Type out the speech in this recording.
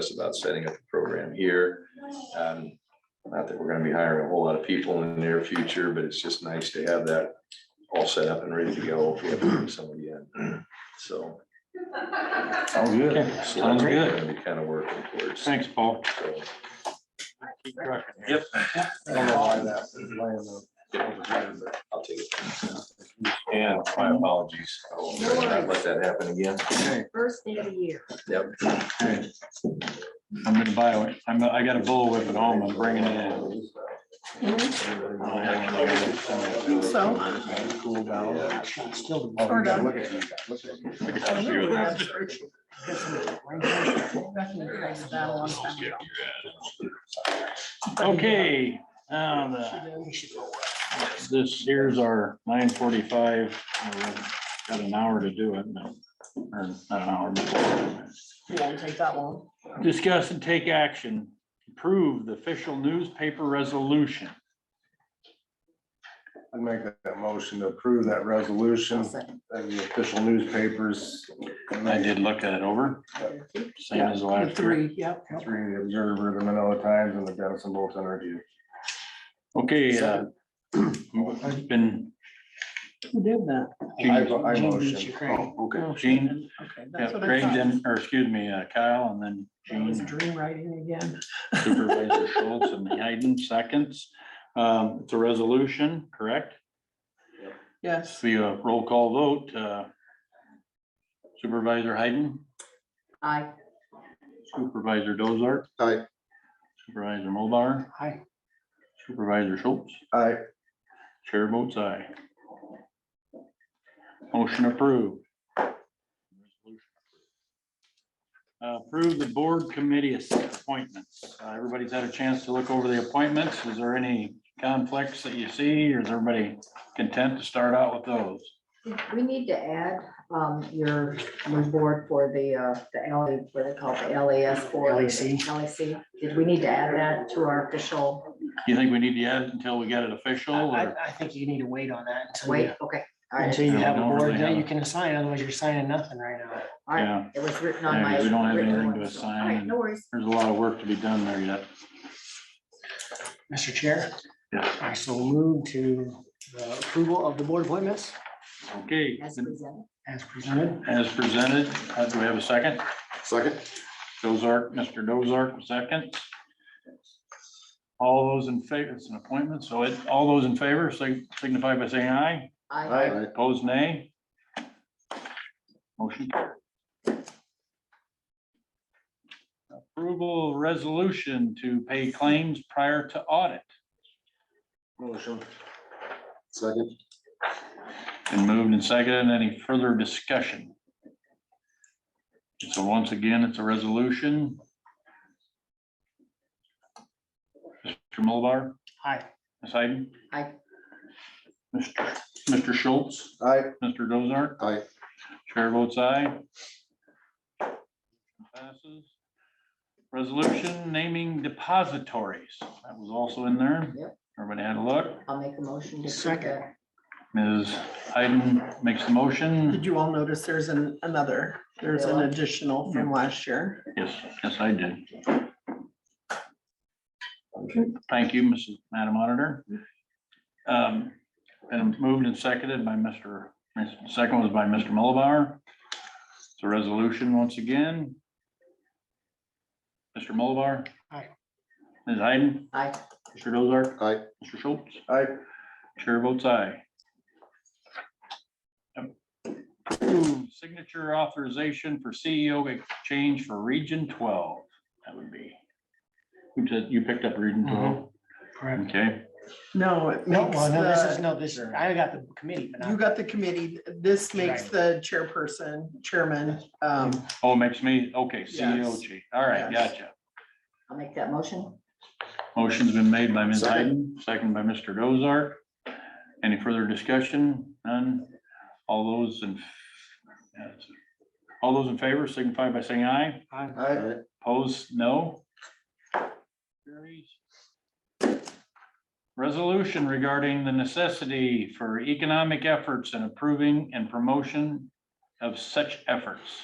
us about setting up a program here. Um, Not that we're gonna be hiring a whole lot of people in the near future, but it's just nice to have that all set up and ready to go if we have to bring somebody in, so. Sounds good. so that's Sounds what we're good. gonna Be kind of working towards. Thanks, Paul. So, Yep. I don't know why that is laying there. I'll take it. And my apologies. I won't Let that happen again. Okay, First day of the year. Yep. okay. I'm gonna buy, one. I'm, I got a bullwhip at home, I'm bringing it in. So. Cool down. Yeah. Still- Oh, Sort of. Look at you, look at you. Okay, now the, this here's our nine forty-five. Got an hour to do it, but- or not an hour, but Won't take that long. Discuss and take action, approve the official newspaper resolution. I'd make that motion to approve that resolution Second. of the official newspapers. and I then did look at it over, same as last year. Three, yep. Three, the Observer, the Manila Times, and the Denison Bulletin Review. Okay, uh, it's been, Who did that? I, Gene, I Jean motion. Beechey Crane. Oh, okay. Gene, Okay, yeah, that's what I Craig thought. then, or excuse me, uh, Kyle, and then That was Gene dream writing again. Supervisor Schultz and Hayden seconds. Um, it's a resolution, correct? Yes. Be a roll call vote, uh, Supervisor Hayden, Aye. Supervisor Dozart. Aye. Supervisor Mulbar, Aye. Supervisor Schultz. I, Chair votes aye. Motion approved. Uh, Approve the board committee appointments. Uh, Everybody's had a chance to look over the appointments. Is there any conflicts that you see, or is everybody content to start out with those? We need to add um, your, your board for the, uh, the LA, what they call the LAS board. LAC. LAC. Did we need to add that to our official You think we need to add it until we get it official, I, or I think you need to wait on that until weight? you, Okay. All right. until you Yeah, have we a don't board really that have you a- can assign, otherwise you're signing nothing right now. All right. Yeah. It was written on Yeah, my. 'cause we don't have written anything to one, so- all assign. right, No worries. there's a lot of work to be done there yet? Mr. Chair? Yeah. I so move to the approval of the board appointments Okay, As presented. as presented. as presented, uh, do we have a second? Second. Dozark, Mr. Dozark, second. All those in favor, it's an appointment, so it, all those in favor sig- signify by saying aye. I, I, Opposed, nay. Motion carried. Approval resolution to pay claims prior to audit. motion. Second. Been moved and seconded. Any further discussion? So once again, it's a resolution. Mr. Mulbar, Hi, Ms. Hayden? Aye. Mr. Mr. Schultz, I, Mr. Dozart, I, Chair votes aye. Passes. Resolution naming depositories. That was also in there. Yep. Everybody had a look. I'll make a motion to. Second. Ms. Hayden makes the motion. Did you all notice there's an, another, there's an additional from last year? Yes, yes, I did. Thank you, Mrs. Madam Auditor. Um, and moved and seconded by Mr., second was by Mr. Mulbauer. It's a resolution once again. Mr. Mulbauer. Aye. Ms. Hayden. I, Mr. Dozark. Aye. Mr. Schultz. I, Chair votes aye. Approve Signature authorization for E CEO exchange for Region twelve. That would be. You said you picked up Region Mm-hmm. twelve? correct. Okay, No, it No, makes well, no, this is, the, no, this, I got the committee, but uh, you not, got the committee, this makes Right. the chairperson, chairman, um, oh, it makes me, okay, CEO Yes. chief. All right, Yes. gotcha. I'll make that motion. Motion's been made by Ms. Second. Hayden, second by Mr. Dozart. Any further discussion? None? All those in yes. all those in favor signify by saying aye. I, Opposed, no. Carries. Resolution regarding the necessity for economic efforts and approving and promotion of such efforts.